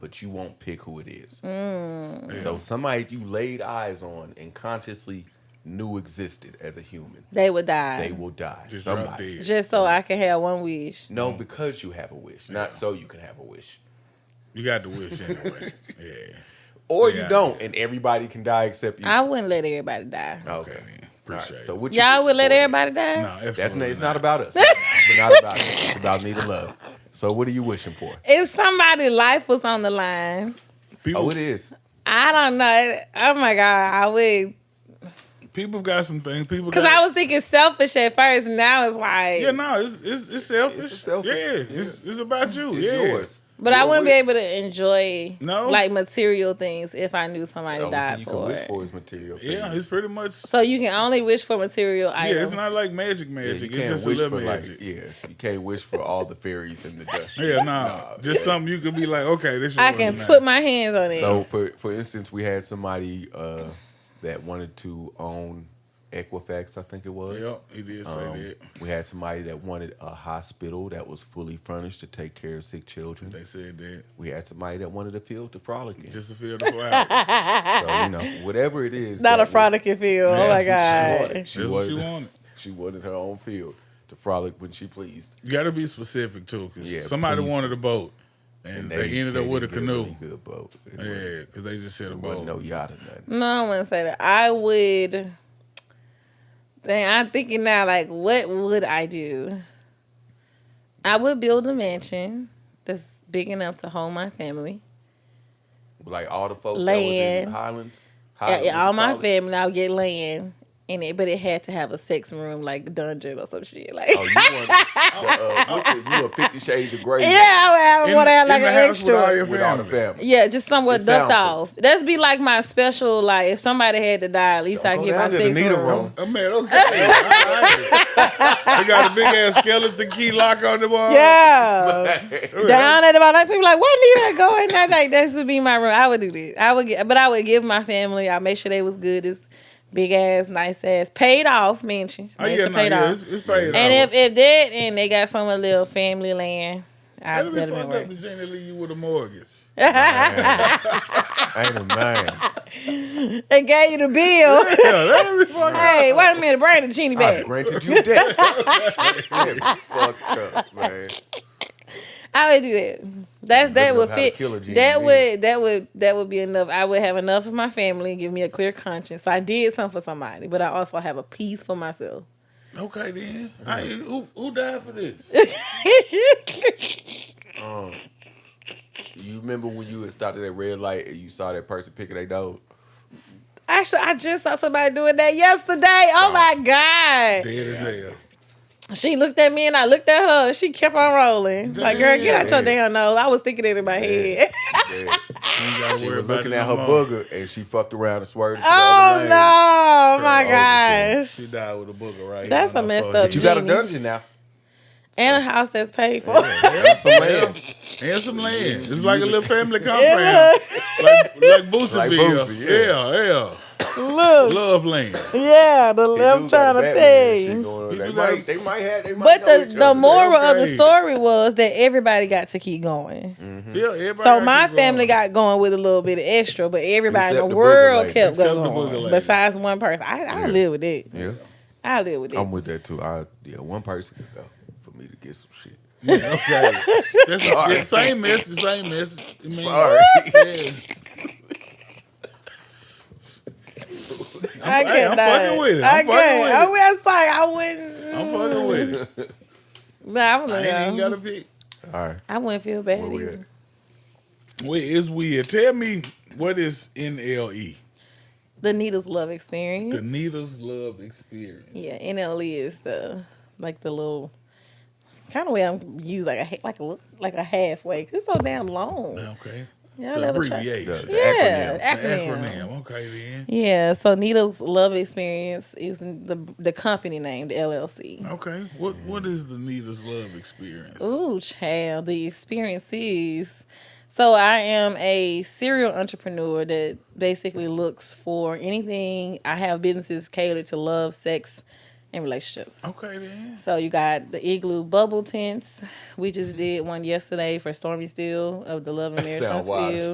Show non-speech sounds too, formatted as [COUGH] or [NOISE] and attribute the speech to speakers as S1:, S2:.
S1: but you won't pick who it is.
S2: Mm.
S1: So somebody you laid eyes on and consciously knew existed as a human,
S2: They would die.
S1: they will die.
S3: Just drop
S1: somebody.
S3: dead. Mm-hmm.
S2: Just so I can have one wish.
S1: No, because you have a wish, not
S3: Yeah.
S1: so you can have a wish.
S3: You got the wish anyway. [LAUGHS] yeah.
S1: Or you
S3: Yeah.
S1: don't, and everybody can die except you.
S2: I wouldn't let everybody die.
S3: Okay, then. Appreciate
S1: Alright,
S3: it.
S1: So what you
S2: Y'all
S1: wish
S2: would let
S1: for?
S2: everybody die?
S3: No, absolutely
S1: That's not, it's not about
S2: [LAUGHS]
S1: us. it's not about us. It's about me to love. So what are you wishing for?
S2: If somebody's life was on the line,
S3: People,
S1: Oh, it is.
S2: I don't know. Oh my God, I would.
S3: people got some things. People
S2: Because
S3: got-
S2: I was thinking selfish at first, and now it's like.
S3: Yeah, no, it's it's, it's selfish.
S1: It's selfish.
S3: Yeah, it's it's about you.
S1: It's
S3: yeah.
S1: yours.
S2: But I
S1: Your
S2: wouldn't be
S1: wish.
S2: able to enjoy
S3: No.
S2: like material things if I knew somebody
S1: The only thing
S2: died
S1: you can
S2: for
S1: wish
S2: it.
S1: for is material.
S3: Yeah,
S1: things.
S3: it's pretty much.
S2: So you can only wish for material
S3: Yeah,
S2: items.
S3: it's not like magic,
S1: Yeah,
S3: magic.
S1: you
S3: it's
S1: can't
S3: just a
S1: wish
S3: little
S1: for like,
S3: magic.
S1: yeah, you can't wish for all the fairies
S3: [LAUGHS]
S1: and the dust.
S3: yeah, no, just something you could be like, okay, this.
S2: I
S3: yours
S2: can
S3: now.
S2: put my hands on it.
S1: So for for instance, we had somebody uh, that wanted to own Equifax, I think it was.
S3: Yep, he did say
S1: Um,
S3: that.
S1: we had somebody that wanted a hospital that was fully furnished to take care of sick children.
S3: They said that
S1: We had somebody that wanted a field to frolic in.
S3: just to feel the
S2: [LAUGHS]
S3: flowers.
S1: so you
S3: [LAUGHS]
S1: know, whatever it is,
S2: not
S1: that
S2: a
S1: we-
S2: frolic you feel. Oh my
S1: That's
S2: God.
S1: what She
S3: That's what
S1: wanted. She
S3: you
S1: wanted.
S3: wanted.
S1: She wanted her own field to frolic when she pleased.
S3: You got to be specific too, because
S1: Yeah,
S3: somebody
S1: please
S3: wanted a boat, and, they, ended up
S1: they
S3: with a
S1: didn't get
S3: canoe.
S1: really good boat. It
S3: Yeah, 'cause
S1: wasn't-
S3: yeah, because they just said a
S1: it wasn't
S3: boat.
S1: no yacht or nothing.
S2: No, I wouldn't say that. I would. Dang, I'm thinking now, like, what would I do? I would build a mansion that's big enough to hold my family.
S1: Like all the folks that was
S2: Land.
S1: in Highlands.
S2: Yeah,
S1: Highlands
S2: yeah, all
S1: you
S2: my
S1: call it?
S2: family, I'll get land in it, but it had to have a sex room, like dungeon or some shit. Like,
S1: Oh, [LAUGHS] you want the, uh, what's it? You a Fifty Shades of Grey?
S2: [LAUGHS] yeah, I would have, one that had, like
S3: in the
S2: an
S3: house with all
S2: extra.
S3: your
S1: with all the
S3: family.
S1: family.
S2: Yeah, just somewhat
S1: It
S2: ducked
S1: sounds
S2: off. That's be like my special. Like, if somebody had to die, at least I
S1: Go
S2: get my
S1: down to the
S2: sex
S1: needle [LAUGHS]
S2: room.
S1: room.
S3: Oh, man, okay. I like it. They got a big ass skeleton key lock on the wall.
S2: Yeah.
S3: [LAUGHS]
S2: [LAUGHS]
S1: That's
S2: down at the bottom. Like people like, why need I go in that? Like this would be my room. I would do this. I would get, but I would give my family. I make sure they was good. This big ass, nice ass, paid off mansion.
S3: Oh,
S2: Mansion
S3: yeah, no,
S2: paid
S3: yeah,
S2: off.
S3: it's, it's paid
S2: and
S3: off.
S2: if if that and they got some of the little family land, I
S3: That'd
S2: would
S3: be
S2: let them
S3: fucked
S2: work.
S3: up to Jenny leave you with a mortgage. [LAUGHS]
S1: ain't a man.
S2: They gave you the
S3: [LAUGHS]
S2: bill.
S3: Yeah, that'd be fucked up.
S2: hey, wait a minute, bring the genie
S1: I
S2: back.
S1: granted you
S2: [LAUGHS]
S1: debt. [LAUGHS] Yeah, fucked up, man.
S2: I would do that. That's that
S1: enough
S2: would
S1: how to
S2: fit.
S1: kill a genie,
S2: That
S1: man.
S2: would that would that would be enough. I would have enough of my family and give me a clear conscience. So I did something for somebody, but I also have a peace for myself. [LAUGHS]
S3: Okay, then. I, who, who died for this?
S1: Um, you remember when you had stopped at that red light and you saw that person picking their nose?
S2: Actually, I just saw somebody doing that yesterday. Oh my god!
S3: Dead as hell.
S2: She looked at me and I looked at her. and She kept on rolling. Like, girl, get out your damn nose. I was thinking it in my head. [LAUGHS]
S1: Yeah.
S3: You ain't gotta
S1: She
S3: worry
S1: was
S3: about
S1: looking
S3: it
S1: at
S3: no
S1: her
S3: more.
S1: booger and she fucked around and swerved. it to the
S2: [LAUGHS] Oh
S1: other
S2: no!
S1: lane.
S2: Oh my
S1: Girl, oh,
S2: gosh!
S3: She died with a booger right here
S2: That's
S3: on
S2: a
S3: her
S2: messed up
S3: forehead.
S1: But you got a
S2: Genie.
S1: dungeon now.
S2: And a house that's paid for.
S3: Yeah,
S1: Some land.
S3: and some land. It's like a little family compound. like like Booseville.
S1: Like Boosie,
S3: yeah. yeah,
S2: [LAUGHS] Look,
S3: Love land.
S2: yeah, the
S1: They
S2: I'm
S1: do got
S2: trying
S1: a
S2: to
S1: Batman
S2: tell
S1: shit
S2: you.
S1: going on.
S3: You
S1: They
S3: do
S1: might,
S3: got-
S1: they might have. They might
S2: But
S1: know
S2: the
S1: each
S2: the
S1: other.
S2: moral of the
S3: okay.
S2: story was that everybody got to keep going.
S3: Yeah, everybody
S2: So
S3: got
S2: my
S3: you
S2: family
S3: going.
S2: got going with a little bit of extra, but everybody
S1: Except
S2: in
S1: the
S2: the
S1: booger
S2: world
S1: lady.
S2: kept
S3: Except the booger
S2: going.
S3: lady.
S2: Besides one person, I, I
S1: Yeah.
S2: live with it.
S1: Yeah,
S2: I live with it.
S1: I'm with that too. I yeah, one person could go for me to get some shit.
S3: Yeah, okay. That's the same message, same message. I mean,
S1: Sorry.
S3: yeah.
S2: I
S3: I'm- hey, I'm
S2: cannot.
S3: fucking with it.
S2: I
S3: I'm fucking
S2: can't.
S3: with it.
S2: I was like, I wouldn't.
S3: I'm fucking with it.
S2: Nah, I
S3: I
S2: wouldn't.
S3: ain't even
S2: go.
S3: got to pick.
S1: All right,
S2: I wouldn't feel bad.
S1: where we at?
S2: either.
S3: Wait, it's weird. Tell me what is NLE?
S2: The Needles Love Experience.
S3: The Needles Love Experience.
S2: yeah, NLE is the like the little kind of way I'm used like a ha- like a li- like a halfway. 'cause it's so damn long.
S3: Okay.
S2: Y'all
S3: The
S2: ever try-
S1: The,
S3: abbreviation.
S1: the
S2: Yeah,
S1: acronym.
S3: The
S2: acronym.
S3: acronym. Okay, then.
S2: Yeah, so Needles Love Experience is the the company name, the LLC.
S3: Okay. What What is the Needles Love Experience?
S2: Ooh, child, the experiences. So I am a serial entrepreneur that basically looks for anything. I have businesses catered to love, sex, in relationships.
S3: Okay then.
S2: So you got the igloo bubble tents. We just did one yesterday for Stormy Steele of the Love and
S1: That
S2: Marriage
S1: sound wise.
S2: Huntsville.